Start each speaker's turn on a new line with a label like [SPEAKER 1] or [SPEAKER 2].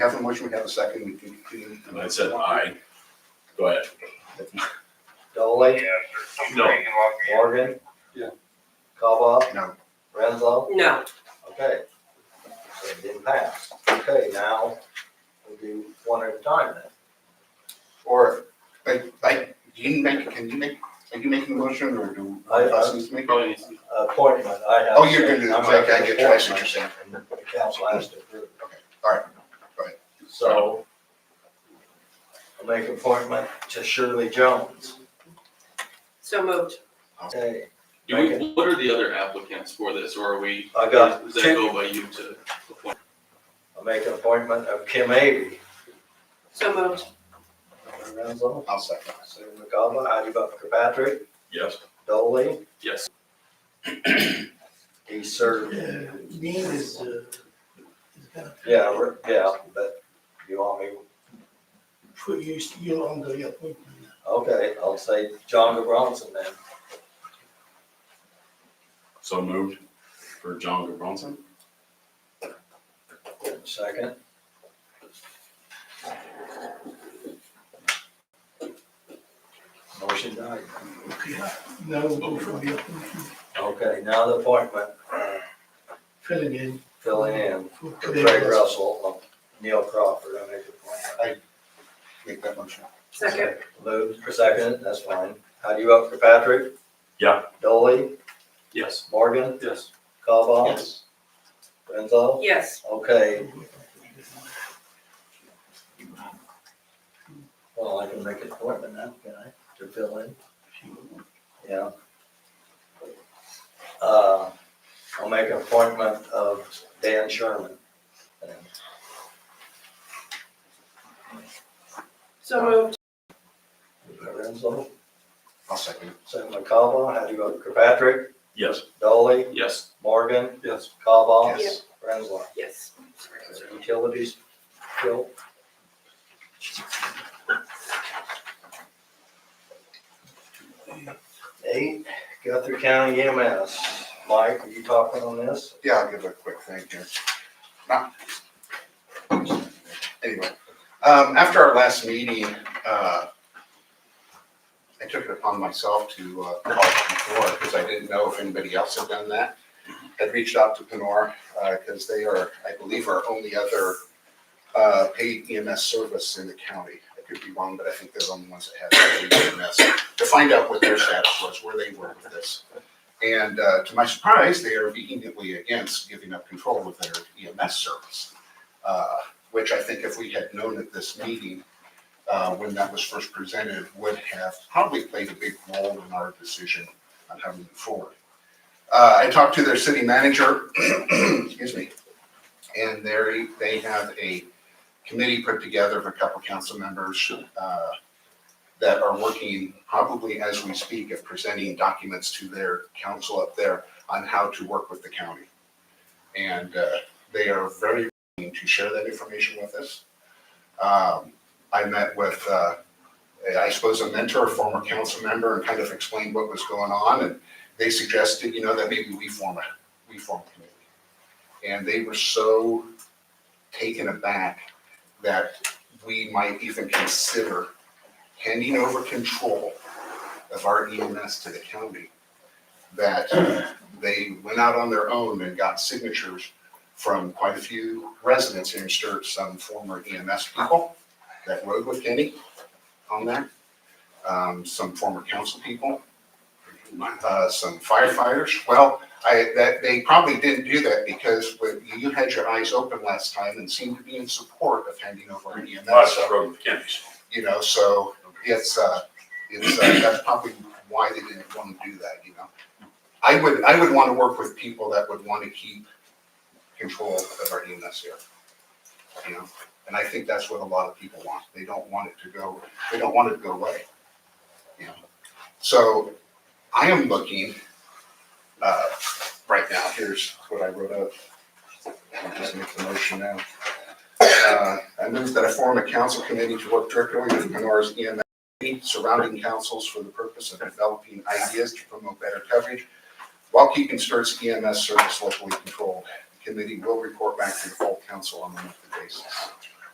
[SPEAKER 1] have a motion, we have a second, we can continue.
[SPEAKER 2] And I said aye. Go ahead.
[SPEAKER 3] Dolly,
[SPEAKER 2] No.
[SPEAKER 3] Morgan.
[SPEAKER 1] Yeah.
[SPEAKER 3] Cobba,
[SPEAKER 1] No.
[SPEAKER 3] Renzo,
[SPEAKER 4] No,
[SPEAKER 3] okay. So it didn't pass. Okay, now we'll do one at a time then.
[SPEAKER 1] Or, like, like, do you make, can you make, are you making a motion or do?
[SPEAKER 3] I- I-
[SPEAKER 1] us need to make it?
[SPEAKER 3] Appointment, I have.
[SPEAKER 1] Oh, you're gonna do that, okay, I get you, I see what you're saying.
[SPEAKER 3] And The council has to approve.
[SPEAKER 1] Okay, all right, go ahead.
[SPEAKER 3] So I'll make appointment to Shirley Jones.
[SPEAKER 4] so moved.
[SPEAKER 3] Okay,
[SPEAKER 5] Do we, what are the other applicants for this, or are we?
[SPEAKER 3] I got
[SPEAKER 5] Does that
[SPEAKER 3] two.
[SPEAKER 5] go by you to appoint?
[SPEAKER 3] I'll make an appointment of Kim Avery.
[SPEAKER 4] So moved.
[SPEAKER 3] Renzo,
[SPEAKER 1] I'll second.
[SPEAKER 3] Sue McCollum, Heidi Bucker Patrick,
[SPEAKER 2] Yes.
[SPEAKER 3] Dolly.
[SPEAKER 5] Yes,
[SPEAKER 3] He served,
[SPEAKER 6] Name is, uh, is gonna
[SPEAKER 3] yeah, we're- yeah, but you want me,
[SPEAKER 6] put you, you on the appointment.
[SPEAKER 3] okay, I'll say John Bronson then.
[SPEAKER 2] So moved for John Gabronson.
[SPEAKER 3] Second. Motion died.
[SPEAKER 6] Okay, now we'll go for the appointment,
[SPEAKER 3] Okay, now the appointment, uh,
[SPEAKER 6] filling in
[SPEAKER 3] filling in
[SPEAKER 6] for
[SPEAKER 3] for
[SPEAKER 6] Claire.
[SPEAKER 3] Craig Russell, Neil Crawford, I make the appointment.
[SPEAKER 1] Make that motion.
[SPEAKER 4] Second,
[SPEAKER 3] Moved, second, that's fine. How do you vote for Patrick?
[SPEAKER 2] Yeah.
[SPEAKER 3] Dolly,
[SPEAKER 5] yes.
[SPEAKER 3] Morgan,
[SPEAKER 5] Yes.
[SPEAKER 3] Cobal,
[SPEAKER 1] Yes.
[SPEAKER 3] Renzo?
[SPEAKER 4] yes.
[SPEAKER 3] Okay, well, I can make an appointment now, can I, to fill in? Yeah. Uh, I'll make an appointment of Dan Sherman.
[SPEAKER 4] So moved.
[SPEAKER 3] Lorenzo,
[SPEAKER 1] I'll second.
[SPEAKER 3] Sam McCallum, how do you vote, Kirkpatrick,
[SPEAKER 2] Yes.
[SPEAKER 3] Dolly,
[SPEAKER 5] Yes.
[SPEAKER 3] Morgan,
[SPEAKER 5] Yes.
[SPEAKER 3] Cobal,
[SPEAKER 1] Yes.
[SPEAKER 3] Renzo.
[SPEAKER 4] Yes.
[SPEAKER 3] Utilities, Bill? Eight, Guthrie County EMS. Mike, are you talking on this?
[SPEAKER 1] Yeah, I'll give a quick thank you. Not- Anyway, um, after our last meeting, uh, I took it upon myself to, uh, call Penora, because I didn't know if anybody else had done that. I'd reached out to Penora, uh, because they are, I believe, our only other, uh, paid EMS service in the county. I could be wrong, but I think they're the only ones that have paid EMS, to find out what their status was, where they were with this. And uh, to my surprise, they are vehemently against giving up control of their EMS service, uh, which I think if we had known at this meeting, uh, when that was first presented, would have probably played a big role in our decision on how to move forward. Uh, I talked to their city manager, excuse me, and they they have a committee put together of a couple council members uh, that are working probably as we speak of presenting documents to their council up there on how to work with the county. And uh, they are very willing to share that information with us. Um, I met with, uh, I suppose, a mentor, a former council member, and kind of explained what was going on. And they suggested, you know, that maybe we form a, we form a committee. And they were so taken aback that we might even consider handing over control of our EMS to the county, that they went out on their own and got signatures from quite a few residents here in Sturt, some former EMS people that rode with Kenny on that, um, some former council people, uh, some firefighters. Well, I, that, they probably didn't do that because when you had your eyes open last time and seemed to be in support of handing over our EMS. So-
[SPEAKER 2] Road mechanics.
[SPEAKER 1] you know, so it's, uh, it's, uh, that's probably why they didn't want to do that, you know? I would, I would want to work with people that would want to keep control of our EMS here. You know, and I think that's what a lot of people want. They don't want it to go, they don't want it to go away. You know, so I am looking, uh, right now, here's what I wrote up. I'll just make the motion now. Uh, I move that I form a council committee to work directly with E Lenore's EMS surrounding councils for the purpose of developing ideas to promote better coverage while keeping Sturt's E EMS service locally controlled. The Committee will report back to the full council on a monthly basis.